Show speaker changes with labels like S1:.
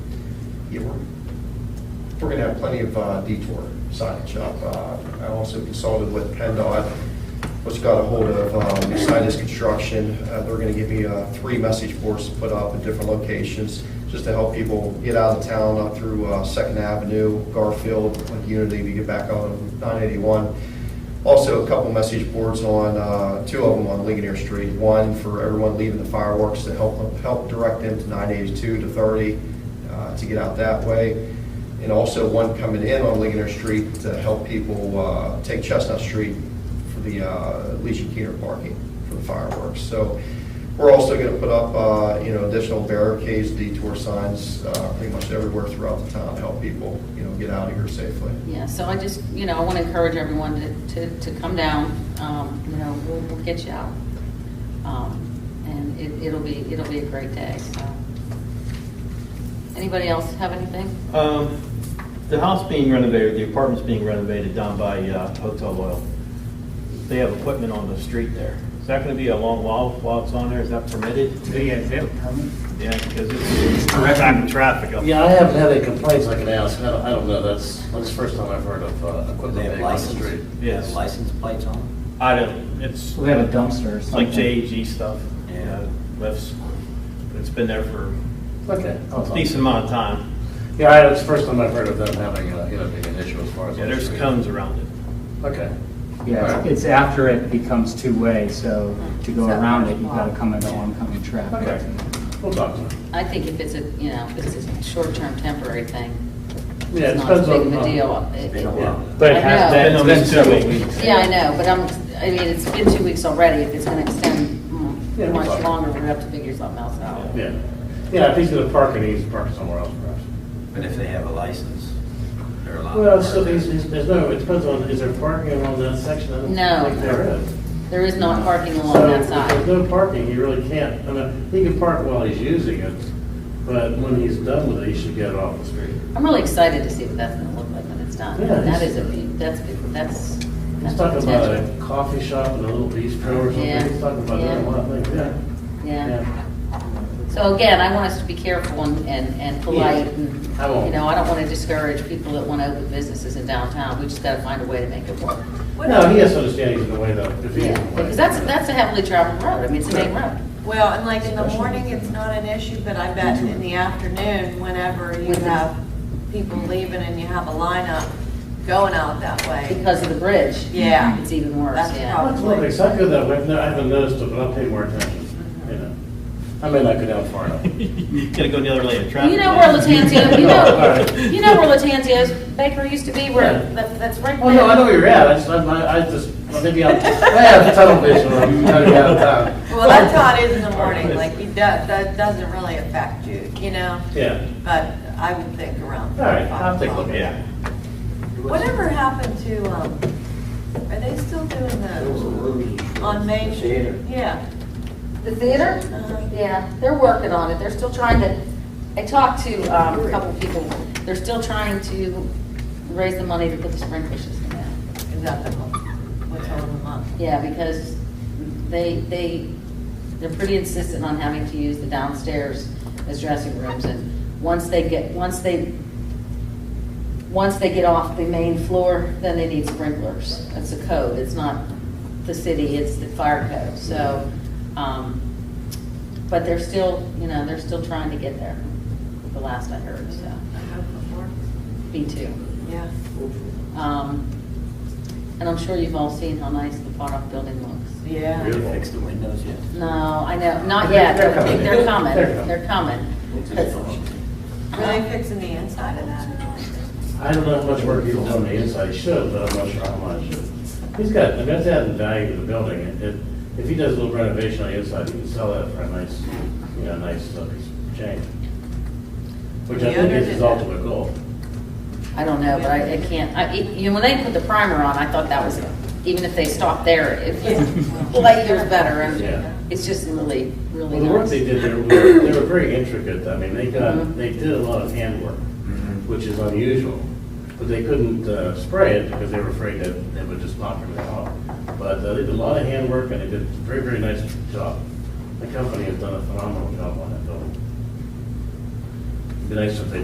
S1: yeah, we're, we're gonna have plenty of uh, detour signage up. Uh, I also consulted with PennDOT, which got a hold of um, Sinus Construction. Uh, They're gonna give me uh, three message boards to put up at different locations, just to help people get out of town, up through uh, Second Avenue, Garfield, like Unity, to get back on 981. Also, a couple message boards on, uh, two of them on Ligonier Street. One for everyone leaving the fireworks to help, them- help direct them to 982 to 30 uh, to get out that way. And also one coming in on Ligonier Street to help people uh, take Chestnut Street for the uh, Legion Keener parking for the fireworks. So we're also going to put up, uh, you know, additional barricades, detour signs, uh, pretty much everywhere throughout the town to help people, you know, get out of here safely.
S2: Yeah, so I just, you know, I want to encourage everyone to, to, to come down, um, you know, we'll, we'll get you out. Um, And it, it'll be, it'll be a great day, so. Anybody else have anything?
S3: Um, The house being renovated, the apartment's being renovated down by uh, Hotel Oil. They have equipment on the street there. Is that going to be a long while while it's on there? Is that permitted?
S4: Do you have a permit?
S3: Yeah, because it's attracting traffic up.
S5: Yeah, I haven't had any complaints I can ask, I don't, I don't know, that's, that's the first time I've heard of uh, equipment
S6: They have
S5: being on the
S6: license,
S5: street.
S6: they have
S3: Yes.
S6: license plates on them?
S3: I don't, it's
S4: We have a dumpster or
S3: it's
S4: something.
S3: like E JEG stuff.
S6: Yeah.
S3: uh, Lifts. It's been there for
S5: Okay. I'll
S3: a
S5: talk.
S3: decent amount of time.
S5: Yeah, I- it's the first time I've heard of them having, uh, you know, being an issue as far as.
S3: Yeah,
S5: on the
S3: there's
S5: street.
S3: cones around it.
S5: Okay.
S4: Yeah, it's- it's after it becomes two-way, so to go around it, you've got to come into oncoming traffic.
S5: Okay, we'll talk to them.
S2: I think if it's a, you know, if it's a short-term temporary thing,
S5: Yeah, it
S2: it's not as
S5: depends
S2: big of
S5: on-
S2: a deal. It-
S6: Been a
S2: it-
S6: while.
S4: But it
S2: I
S4: has
S2: know.
S4: been, it's been
S3: It's been two
S4: several
S3: weeks.
S4: weeks.
S2: Yeah, I know, but I'm, I mean, it's been two weeks already, if it's going to extend mm,
S5: Yeah, we'll
S2: much
S5: talk.
S2: longer, we're going to have to figure something else out.
S5: Yeah, yeah, if he's gonna park it, he's parking somewhere else perhaps.
S6: But if they have a license, they're allowed. to
S5: Well,
S6: park
S5: so
S6: there.
S5: there's, there's no, it depends on, is there parking along that section? I don't
S2: No.
S5: think There is.
S2: There is not parking
S5: So,
S2: along that
S5: If there's
S2: side.
S5: no parking, you really can't, I mean, he can park while he's using it, but when he's done with it, he should get off the street.
S2: I'm really excited to see what that's gonna look like when it's done.
S5: Yeah,
S2: That is
S5: it's-
S2: a, be- that's, be- that's.
S5: He's
S2: that's
S5: talking about
S2: potential.
S5: a coffee shop and a little bistro or
S2: Yeah,
S5: something, he's talking about that a
S2: yeah.
S5: lot, like, yeah.
S2: Yeah. So again, I want us to be careful and, and and polite
S5: Yeah,
S2: and,
S5: I won't.
S2: you know, I don't wanna discourage people that wanna open businesses in downtown. We just gotta find a way to make it work.
S5: No, he has to understand he's in the way though, if he's in
S2: Yeah,
S5: the way.
S2: because that's, that's a heavily traveled road. I mean, it's a main road.
S7: Well, and like in the morning, it's not an issue, but I bet in the afternoon, whenever you
S2: With the-
S7: have people leaving and you have a lineup going out that way.
S2: Because of the bridge.
S7: Yeah.
S2: It's even worse,
S7: That's
S2: yeah.
S7: probably-
S5: That's lovely, it's not good that way, No, I haven't noticed it, but I'll pay more attention, you know. I may not go down far enough.
S3: Gotta go the other lane of traffic.
S2: You know where Latanzio, you know,
S5: Alright.
S2: you know where Latanzio's bakery used to be, where, that- that's right there.
S5: Well, Oh, no, I know where you're at, I just, I I just, well, maybe I'm, I have tunnel vision, or I'm trying to get out of town.
S7: Well, that's how it is in the morning, like you, that, that doesn't really affect you, you know?
S5: Yeah,
S7: But I would think around.
S5: all right,
S7: five
S5: I'll take a look
S7: o'clock.
S5: at it.
S3: Yeah.
S7: Whatever happened to, um, are they still doing those on Main Street? Yeah.
S2: The theater?
S7: Uh-huh.
S2: Yeah, they're working on it. They're still trying to, I talked to um, a couple people. They're still trying to raise the money to put the sprinkler system in.
S7: Is that the, what's holding them up?
S2: Yeah, because they, they, they're pretty insistent on having to use the downstairs as dressing rooms. And once they get, once they, once they get off the main floor, then they need sprinklers. That's the code. It's not the city, it's the fire code. So, um, but they're still, you know, they're still trying to get there, the last I heard, so,
S7: I hope it works.
S2: B two.
S7: Yeah.
S2: Um, And I'm sure you've all seen how nice the far-off building looks.
S7: Yeah.
S6: Did they fix the windows yet?
S2: No, I know, not yet,
S5: They're
S2: but
S5: coming.
S2: they're coming,
S5: They're coming.
S2: they're coming.
S7: Were they fixing the inside of that?
S5: I don't know how much work he's done on the inside, he should, but I'm not sure how much. He's got, I mean, that's adding value to the building, and if, if he does a little renovation on the inside, he can sell that for a nice, you know, nice uh, change. Which I
S7: The
S5: think
S7: owner
S5: is
S7: did
S5: his
S7: that.
S5: ultimate goal.
S2: I don't know, but I I can't, I, you know, when they put the primer on, I thought that was, even if they stopped there, it was, light years better,
S5: Yeah.
S2: and it's just really, really
S5: Well, the work
S2: nice.
S5: they did there, was- they were very intricate, I mean, they
S2: Mhm.
S5: got, they did a lot of handwork, which is unusual, but they couldn't uh, spray it because they were afraid that it would just knock everything off. But uh, they did a lot of handwork and they did a very, very nice job. The company has done a phenomenal job on that building. It'd be nice if they